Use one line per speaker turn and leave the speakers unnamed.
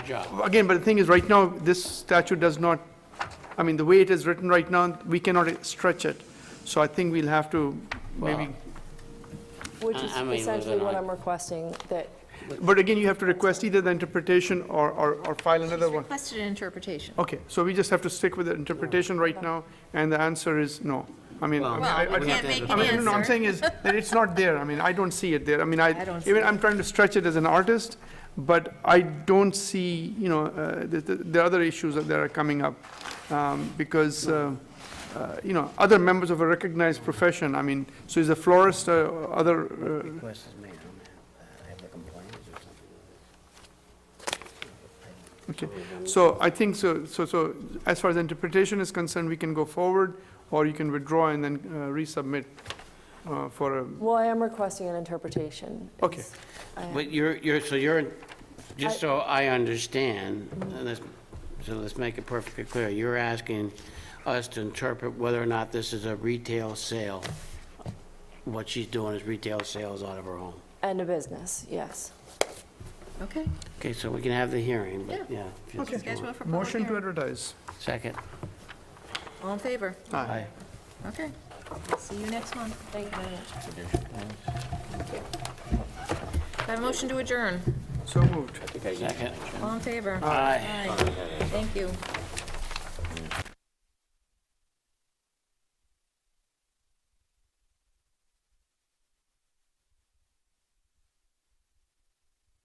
job.
Again, but the thing is, right now, this statute does not, I mean, the way it is written right now, we cannot stretch it. So I think we'll have to maybe,
Which
I-
is
I mean, with
essentially
an
what
eye-
I'm requesting, that,
but again, you have to request either the interpretation or, or, or file another one.
Requested an interpretation.
Okay, so we just have to stick with the interpretation right now, and the answer is no. I mean, I mean,
Well,
I, I
Well,
don't.
we can't make
I
an
mean, no, I'm
answer.
saying is that it's not there. I mean, I don't see it there. I mean,
I
I,
don't
even,
see
I'm trying to stretch it as an artist, but I don't see, you know, uh, the, the- the other issues that that are coming up. um, Because, uh, uh, you know, other members of a recognized profession, I mean, so is a florist, uh, other, uh,
Request is made, I don't have, I have the complaints or something.
Okay, so I think, so, so, so, as far as interpretation is concerned, we can go forward, or you can withdraw and then uh, resubmit uh, for a,
well, I am requesting an interpretation. uh,
okay.
It's- I-
But you're, you're, so you're, just so I understand, and let's- so let's make it perfectly clear, you're asking us to interpret whether or not this is a retail sale. What she's doing is retail sales out of her home.
And a business, yes.
Okay.
Okay, so we can have the hearing, but yeah. if you- if you
Schedule
want.
for public
Motion to
hearing.
advertise.
Second.
All in favor?
Aye.
Okay. See you next month.
Thank you very much.
Do I Have a motion to adjourn.
So moved.
Second.
All in favor?
Aye.
Thank you.